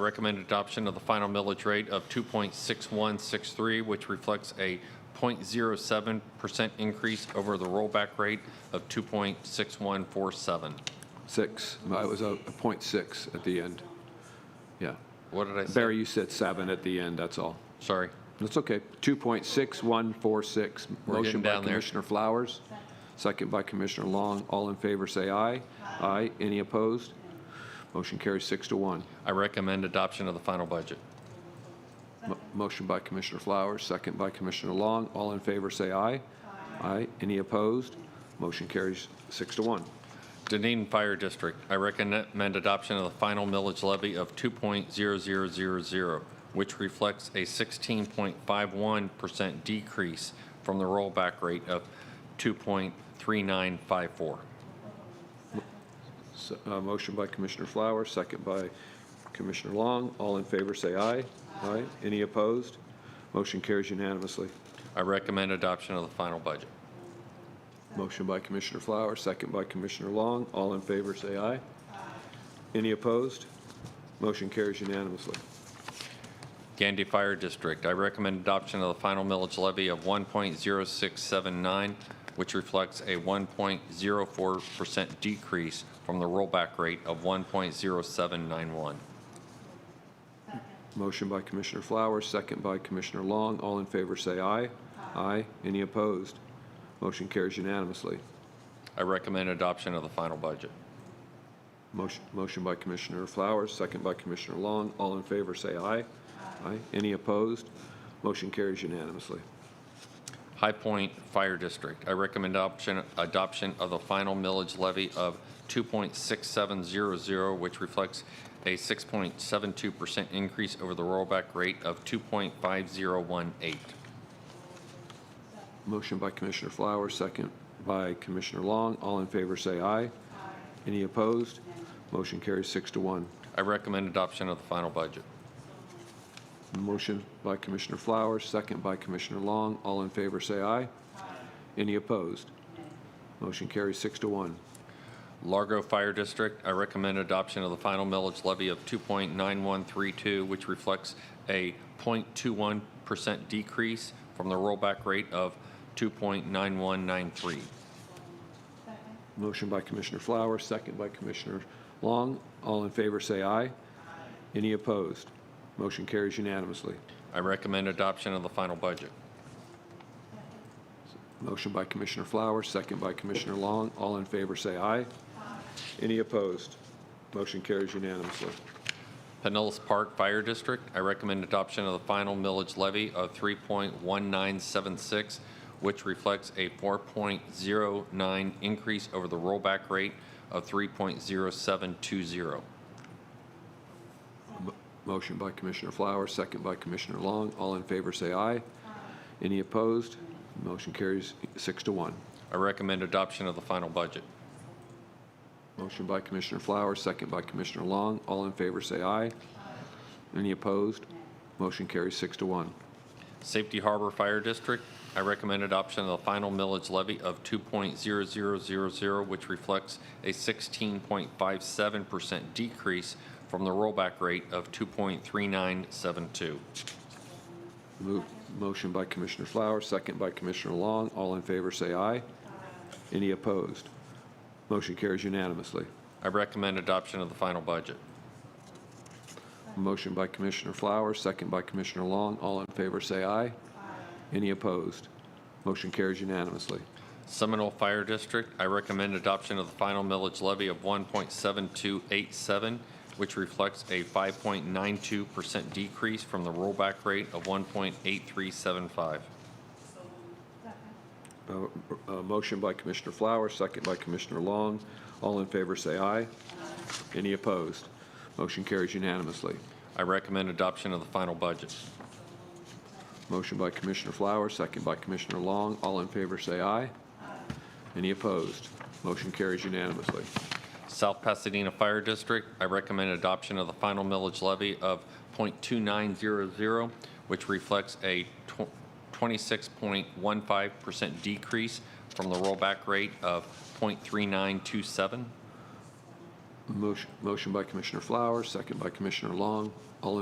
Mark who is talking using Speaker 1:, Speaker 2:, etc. Speaker 1: Recommend adoption of the final millage rate of 2.6163, which reflects a 0.07% increase over the rollback rate of 2.6147.
Speaker 2: Six. No, It was a a point six at the end. Yeah.
Speaker 1: What did I say?
Speaker 2: Barry, you said seven at the end, that's all.
Speaker 1: Sorry.
Speaker 2: That's okay. 2.6146.
Speaker 1: We're
Speaker 2: Motion
Speaker 1: getting
Speaker 2: by
Speaker 1: down there.
Speaker 2: Commissioner Flowers, second by Commissioner Long. All in favor, say aye. Aye. Any opposed? Motion carries six to one.
Speaker 1: I recommend adoption of the final budget.
Speaker 2: Mo- Motion by Commissioner Flowers, second by Commissioner Long. All in favor, say aye. Aye. Any opposed? Motion carries six to one.
Speaker 1: Dunedin Fire District, I recommend adoption of the final millage levy of 2.0000, which reflects a 16.51% decrease from the rollback rate of 2.3954.
Speaker 2: So, uh, Motion by Commissioner Flowers, second by Commissioner Long. All in favor, say aye. Aye. Any opposed? Motion carries unanimously.
Speaker 1: I recommend adoption of the final budget.
Speaker 2: Motion by Commissioner Flowers, second by Commissioner Long. All in favor, say aye. Any opposed? Motion carries unanimously.
Speaker 1: Gandy Fire District, I recommend adoption of the final millage levy of 1.0679, which reflects a 1.04% decrease from the rollback rate of 1.0791.
Speaker 2: Motion by Commissioner Flowers, second by Commissioner Long. All in favor, say aye. Aye. Any opposed? Motion carries unanimously.
Speaker 1: I recommend adoption of the final budget.
Speaker 2: Motion motion by Commissioner Flowers, second by Commissioner Long. All in favor, say aye. Aye. Any opposed? Motion carries unanimously.
Speaker 1: High Point Fire District, I recommend adoption, adoption of the final millage levy of 2.6700, which reflects a 6.72% increase over the rollback rate of 2.5018.
Speaker 2: Motion by Commissioner Flowers, second by Commissioner Long. All in favor, say aye. Any opposed? Motion carries six to one.
Speaker 1: I recommend adoption of the final budget.
Speaker 2: Motion by Commissioner Flowers, second by Commissioner Long. All in favor, say aye. Any opposed? Motion carries six to one.
Speaker 1: Largo Fire District, I recommend adoption of the final millage levy of 2.9132, which reflects a 0.21% decrease from the rollback rate of 2.9193.
Speaker 2: Motion by Commissioner Flowers, second by Commissioner Long. All in favor, say aye. Any opposed? Motion carries unanimously.
Speaker 1: I recommend adoption of the final budget.
Speaker 2: Motion by Commissioner Flowers, second by Commissioner Long. All in favor, say aye. Any opposed? Motion carries unanimously.
Speaker 1: Pinellas Park Fire District, I recommend adoption of the final millage levy of 3.1976, which reflects a 4.09 increase over the rollback rate of 3.0720.
Speaker 2: Motion by Commissioner Flowers, second by Commissioner Long. All in favor, say aye. Any opposed? Motion carries six to one.
Speaker 1: I recommend adoption of the final budget.
Speaker 2: Motion by Commissioner Flowers, second by Commissioner Long. All in favor, say aye. Any opposed? Motion carries six to one.
Speaker 1: Safety Harbor Fire District, I recommend adoption of the final millage levy of 2.0000, which reflects a 16.57% decrease from the rollback rate of 2.3972.
Speaker 2: Move- Motion by Commissioner Flowers, second by Commissioner Long. All in favor, say aye. Any opposed? Motion carries unanimously.
Speaker 1: I recommend adoption of the final budget.
Speaker 2: Motion by Commissioner Flowers, second by Commissioner Long. All in favor, say aye. Any opposed? Motion carries unanimously.
Speaker 1: Seminole Fire District, I recommend adoption of the final millage levy of 1.7287, which reflects a 5.92% decrease from the rollback rate of 1.8375.
Speaker 2: Uh, uh, Motion by Commissioner Flowers, second by Commissioner Long. All in favor, say aye. Any opposed? Motion carries unanimously.
Speaker 1: I recommend adoption of the final budget.
Speaker 2: Motion by Commissioner Flowers, second by Commissioner Long. All in favor, say aye. Any opposed? Motion carries unanimously.
Speaker 1: South Pasadena Fire District, I recommend adoption of the final millage levy of .2900, which reflects a tw- 26.15% decrease from the rollback rate of .3927.
Speaker 2: Motion motion by Commissioner Flowers, second by Commissioner Long. All in